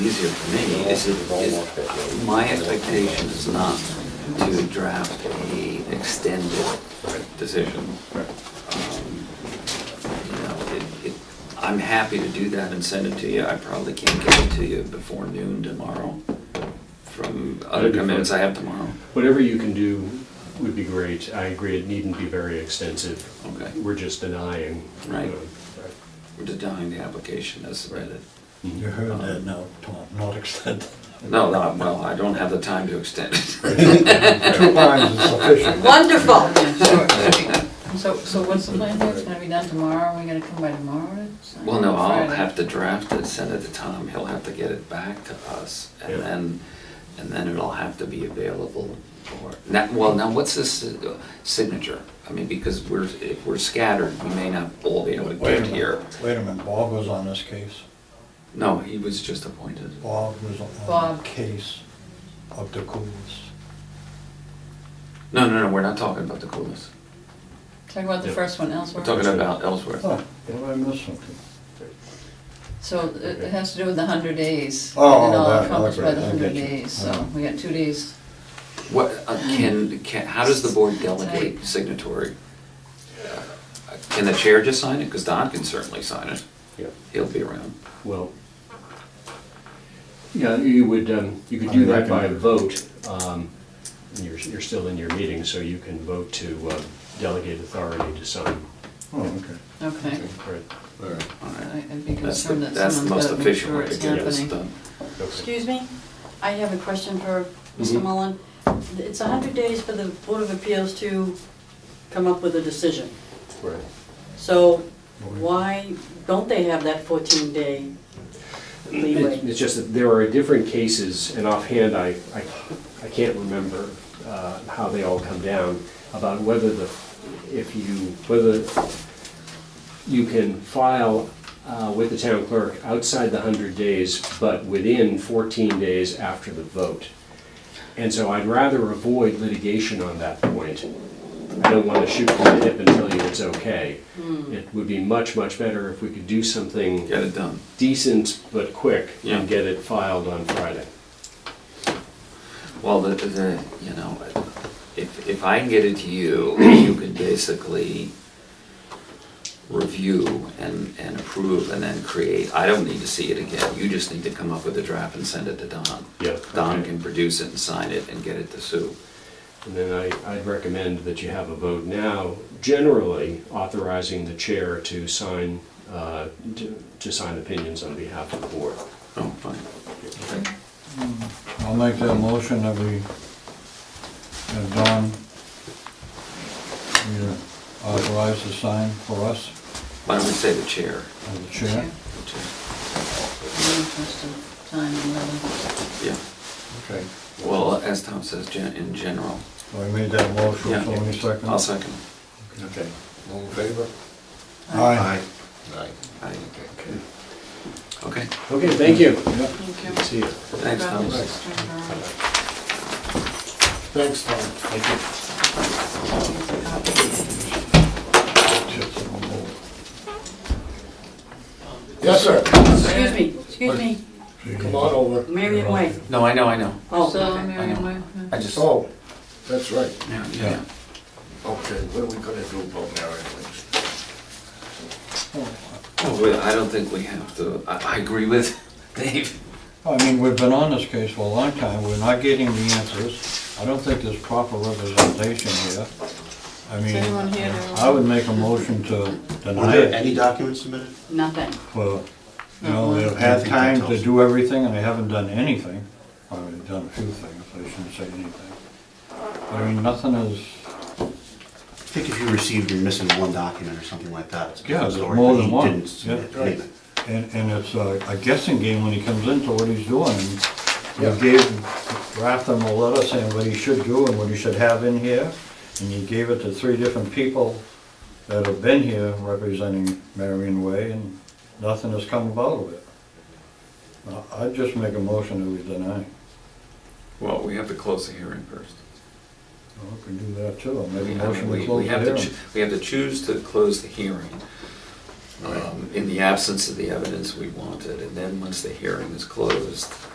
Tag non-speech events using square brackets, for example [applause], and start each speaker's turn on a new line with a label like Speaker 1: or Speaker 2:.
Speaker 1: easier for me is, is, my expectation is not to draft a extended decision. Um, You know, it, it, I'm happy to do that and send it to you, I probably can't get it to you before noon tomorrow, from other
Speaker 2: That'd be
Speaker 1: commitments I
Speaker 2: fine.
Speaker 1: have tomorrow.
Speaker 2: Whatever you can do would be great. I agree, it needn't be very extensive.
Speaker 1: Okay.
Speaker 2: We're just denying.
Speaker 1: Right.
Speaker 2: uh, mm-hmm. right.
Speaker 1: We're denying the application as submitted.
Speaker 3: You heard that now, Tom, not extended.
Speaker 1: No, no, well, I don't have the time to extend it.
Speaker 3: Two lines is sufficient.
Speaker 4: Wonderful.
Speaker 5: So, so what's the plan here? It's gonna be done tomorrow, we gotta come by tomorrow to sign?
Speaker 1: Well, no, I'll
Speaker 5: Friday.
Speaker 1: have to draft it, send it to Tom, he'll have to get it back to us,
Speaker 2: Yeah.
Speaker 1: and then, and then it'll have to be available for, now, well, now, what's this uh, signature? I mean, because we're, if we're scattered, we may not all be able to
Speaker 3: [laughs] Wait a
Speaker 1: get here.
Speaker 3: minute, wait a minute, Bob was on this case.
Speaker 1: No, he was just appointed.
Speaker 3: Bob was on the
Speaker 5: Bob.
Speaker 3: case of the coolest.
Speaker 1: No, no, no, we're not talking about the coolest,
Speaker 5: Talking about the
Speaker 2: Yeah.
Speaker 5: first one elsewhere.
Speaker 1: we're talking about Ellsworth.
Speaker 3: Oh, did I miss something?
Speaker 5: So it it has to do with the hundred days.
Speaker 3: Oh,
Speaker 5: And all
Speaker 3: that-
Speaker 5: accomplished by
Speaker 3: okay,
Speaker 5: the
Speaker 3: I
Speaker 5: hundred
Speaker 3: get you.
Speaker 5: days, so
Speaker 3: Uh-huh.
Speaker 5: we got two days.
Speaker 1: What, uh, can, can, how does the board delegate
Speaker 5: Right.
Speaker 1: signatory? Uh, Can the chair just sign it? Because Don can certainly sign it,
Speaker 2: Yeah,
Speaker 1: he'll be around.
Speaker 2: well, yeah, you would, um, you could do
Speaker 3: I
Speaker 2: that by
Speaker 3: reckon-
Speaker 2: vote. Um, You're, you're still in your meeting, so you can vote to uh, delegate authority to sign.
Speaker 3: Oh, okay.
Speaker 5: Okay.
Speaker 2: Right.
Speaker 3: All right.
Speaker 1: All
Speaker 5: I-
Speaker 1: right.
Speaker 5: I'd be
Speaker 1: That's the,
Speaker 5: concerned that
Speaker 1: that's the
Speaker 5: someone's
Speaker 1: most
Speaker 5: gotta make
Speaker 1: efficient
Speaker 5: sure
Speaker 1: way to
Speaker 5: it's
Speaker 1: get this
Speaker 5: happening.
Speaker 1: done.
Speaker 2: Okay.
Speaker 4: Excuse me, I have a question for
Speaker 2: Mhm.
Speaker 4: Mr. Mullen. It's 100 days for the Board of Appeals to come up with a decision.
Speaker 2: Right.
Speaker 4: So
Speaker 3: Well, we-
Speaker 4: why don't they have that 14-day
Speaker 2: It-
Speaker 4: leeway?
Speaker 2: It's just that there are different cases, and offhand, I, I, I can't remember uh, how they all come down, about whether the, if you, whether you can file uh, with the town clerk outside the 100 days, but within 14 days after the vote. And so I'd rather avoid litigation on that point. I don't want to shoot from the hip and tell you it's okay. It would be much, much better if we could do something
Speaker 1: Get it done.
Speaker 2: decent but quick
Speaker 1: Yeah.
Speaker 2: and get it filed on Friday.
Speaker 1: Well, the, the, you know, if, if I can get it to you, you can basically review and, and approve and then create. I don't need to see it again. You just need to come up with a draft and send it to Don.
Speaker 2: Yeah,
Speaker 1: Don
Speaker 2: okay.
Speaker 1: can produce it and sign it and get it to Sue.
Speaker 2: And then I, I'd recommend that you have a vote now, generally authorizing the chair to sign, uh, to, to sign opinions on behalf of the board.
Speaker 1: Oh, fine. Okay.
Speaker 3: I'll make that motion that we, that Don, we authorize the sign for us
Speaker 1: Why don't we say the chair?
Speaker 3: as the chair.
Speaker 1: The chair.
Speaker 5: Really interested time and weather.
Speaker 1: Yeah,
Speaker 3: Okay.
Speaker 1: well, as Tom says, gen- in general.
Speaker 3: So I made that motion,
Speaker 1: Yeah.
Speaker 3: so any second?
Speaker 1: I'll second.
Speaker 6: Okay, all in favor?
Speaker 3: Aye.
Speaker 6: Aye.
Speaker 1: Aye.
Speaker 6: Okay.
Speaker 1: Okay,
Speaker 2: Okay, thank you.
Speaker 5: Thank
Speaker 2: Good to
Speaker 5: you.
Speaker 2: See you.
Speaker 1: thanks, Tom.
Speaker 5: Probably just turn around.
Speaker 6: Thanks, Tom. Thank you. Yes, sir.
Speaker 4: Excuse me, excuse me,
Speaker 6: Come on over.
Speaker 4: Marion Way.
Speaker 1: No, I know, I know.
Speaker 4: Oh,
Speaker 5: So,
Speaker 4: okay.
Speaker 5: Mary,
Speaker 1: know.
Speaker 5: why-
Speaker 1: I just, yeah,
Speaker 6: Oh, that's right.
Speaker 1: yeah.
Speaker 6: Okay, what are we gonna do about Marion Lynch?
Speaker 1: Oh, wait, I don't think we have to, I, I agree with Dave.
Speaker 3: I mean, we've been on this case for a long time, we're not getting the answers. I don't think there's proper representation here. I
Speaker 5: anyone
Speaker 3: mean,
Speaker 5: here
Speaker 3: I would make a motion to
Speaker 7: Were
Speaker 3: deny
Speaker 7: there
Speaker 3: it
Speaker 7: any documents submitted?
Speaker 4: nothing.
Speaker 3: for, you
Speaker 5: Not
Speaker 3: know,
Speaker 5: one.
Speaker 3: they've had time to do everything and they haven't done anything. Or they've done a few things, I shouldn't say anything. I mean, nothing is,
Speaker 7: I think if you received, you're missing one document or something like that. It's a
Speaker 3: Yeah,
Speaker 7: different
Speaker 3: there's
Speaker 7: story,
Speaker 3: more
Speaker 7: but
Speaker 3: than
Speaker 7: he
Speaker 3: one,
Speaker 7: didn't submit
Speaker 3: yeah.
Speaker 7: anything.
Speaker 3: and, and it's a a guessing game when he comes into what he's doing. You gave Ratham a letter saying what he should do and what he should have in here, and you gave it to three different people that have been here representing Marion Way, and nothing has come about of it. I- I'd just make a motion that we deny.
Speaker 1: Well, we have to close the hearing first.
Speaker 3: Well, we can do that too, I'll
Speaker 1: I
Speaker 3: make a
Speaker 1: mean,
Speaker 3: motion
Speaker 1: we-
Speaker 3: to
Speaker 1: we
Speaker 3: close the
Speaker 1: have to
Speaker 3: hearing.
Speaker 1: choo- We have to choose to close the hearing. um, in the absence of the evidence we wanted. And then, once the hearing is closed,